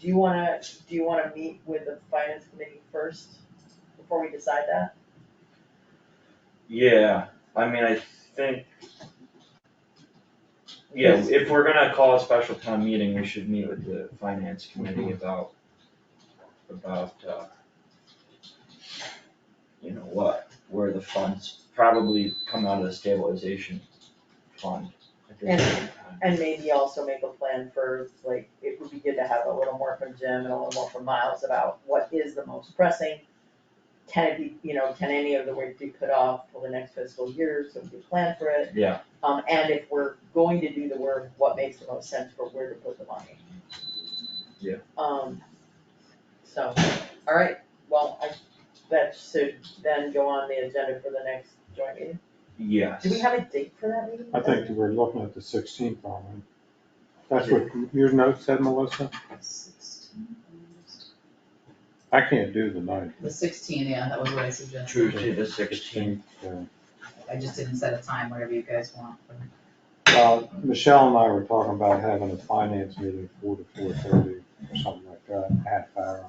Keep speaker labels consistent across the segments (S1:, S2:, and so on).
S1: do you wanna, do you wanna meet with the finance committee first, before we decide that?
S2: Yeah, I mean, I think. Yeah, if we're gonna call a special town meeting, we should meet with the finance
S1: Mm-hmm.
S2: committee about, about, uh. You know what, where the funds probably come out of the stabilization fund at this point in time.
S1: And maybe also make a plan for, like, it would be good to have a little more from Jim and a little more from Miles about what is the most pressing. Can it be, you know, can any of the work be put off till the next fiscal year, so we can plan for it?
S2: Yeah,
S1: Um, and if we're going to do the work, what makes the most sense for where to put the money?
S2: Yeah.
S1: Um, so, alright, well, I, that should then go on the agenda for the next joint meeting.
S2: yes.
S1: Do we have a date for that meeting?
S3: I think we're looking at the sixteenth, aren't we? That's what your note said, Melissa? I can't do the ninth.
S4: The sixteen, yeah, that was what I suggested.
S2: Tuesday the sixteenth,
S3: Yeah.
S4: I just didn't set a time, whatever you guys want.
S3: Uh, Michelle and I were talking about having a finance meeting four to four thirty or something like that, half hour.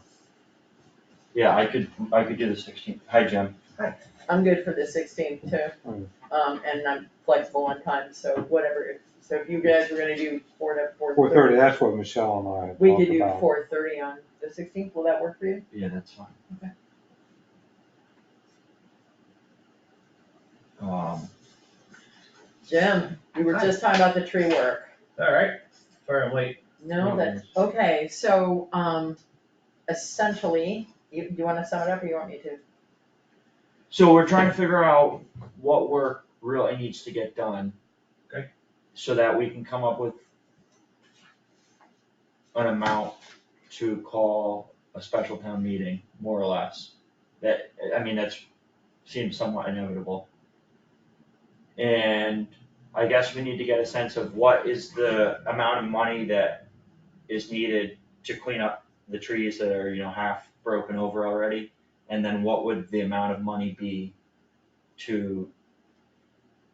S2: yeah, I could, I could do the sixteenth, hi Jim,
S1: I'm good for the sixteenth
S3: Mm.
S1: too, um, and I'm flexible on time, so whatever, so if you guys were gonna do four to four
S3: Four
S1: thirty.
S3: thirty, that's what Michelle and I had
S1: We could
S3: talked
S1: do
S3: about.
S1: four thirty on the sixteenth, will that work for you?
S2: yeah, that's fine.
S1: Okay.
S2: Um.
S1: Jim, we were
S5: Hi.
S1: just talking about the tree work.
S5: Alright, sorry I'm late.
S1: No,
S2: No
S1: that, okay, so, um, essentially, you, you wanna sum it up or you want me to?
S2: So we're trying to figure out what work really needs to get done.
S5: Okay.
S2: So that we can come up with an amount to call a special town meeting, more or less. That, I mean, that's, seems somewhat inevitable. And I guess we need to get a sense of what is the amount of money that is needed to clean up the trees that are, you know, half broken over already. And then what would the amount of money be to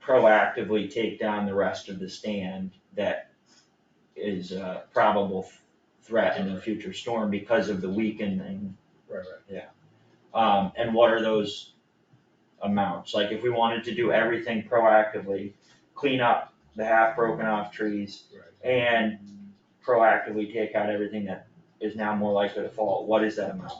S2: proactively take down the rest of the stand that is a probable f- threat in a future storm because of the weakening?
S5: Right, right.
S2: Um, and what are those amounts? Like if we wanted to do everything proactively, clean up the half broken off trees and proactively take out everything that is now more likely to fall, what is that amount?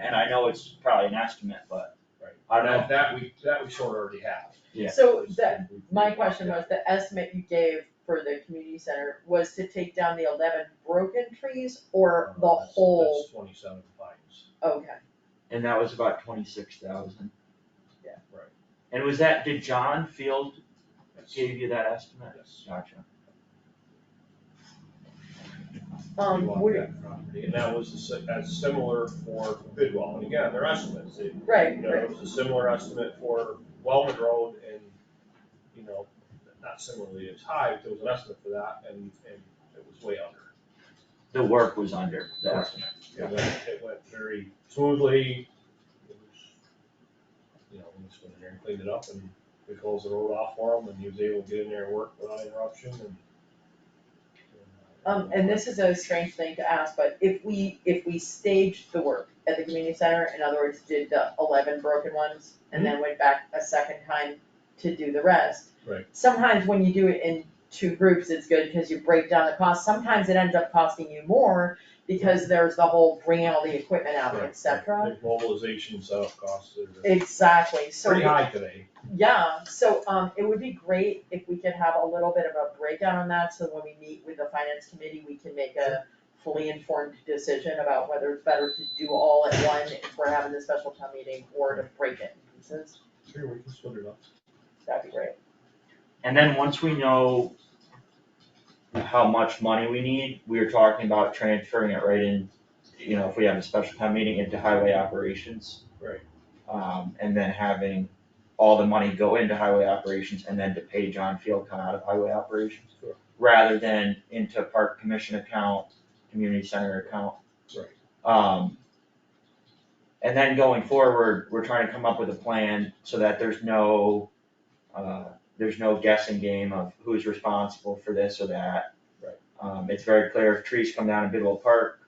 S2: And I know it's probably an estimate, but
S5: Right.
S2: I don't know.
S5: That, that we, that we sort of already have.
S2: Yeah.
S1: So that, my question was, the estimate you gave for the community center was to take down the eleven broken trees or the
S5: Oh, That's-
S1: whole,
S5: That's twenty-seven fines.
S1: okay.
S2: And that was about twenty-six thousand.
S1: Yeah.
S5: Right.
S2: And was that, did John Field
S5: That's-
S2: give you that estimate?
S5: Yes.
S2: Gotcha.
S5: We
S1: Um,
S5: want
S1: would,
S5: that property, And that was, a si- that's similar for Bidwell, and again, they're estimates, It-
S1: right,
S5: you know,
S1: right,
S5: it was a similar estimate for Wellman Road and, you know, not similarly as high, but there was an estimate for that, and, and it was way under.
S2: The work was under the estimate.
S5: It went, it went very smoothly. It was, You know, we just went in there and cleaned it up and we closed the road off for him and he was able to get in there and work without interruption and.
S1: um, and this is a strange thing to ask, but if we, if we staged the work at the community center, in other words, did the eleven broken ones
S5: Hmm?
S1: and then went back a second time to do the rest.
S5: Right.
S1: Sometimes when you do it in two groups, it's good because you break down the cost, sometimes it ends up costing you more because there's the whole bringing all the equipment out,
S5: Right,
S1: et cetera.
S5: right. The Mobilization setup costs are
S1: Exactly, so.
S5: pretty high today.
S1: Yeah, so um it would be great if we could have a little bit of a breakdown on that, so when we meet with the finance committee, we can make a fully informed decision about whether it's better to do all at one if we're having the special town meeting or to break it in pieces,
S5: Sure, we can split it up.
S1: that'd be great.
S2: And then once we know how much money we need, we were talking about transferring it right in, you know, if we have a special town meeting into highway operations.
S5: Right.
S2: Um, and then having all the money go into highway operations and then to pay John Field come out of highway operations.
S5: Sure.
S2: rather than into park commission account, community center account.
S5: Right.
S2: Um. And then going forward, we're trying to come up with a plan so that there's no, uh, there's no guessing game of who's responsible for this or that.
S5: Right.
S2: Um, it's very clear if trees come down in Bidwell Park,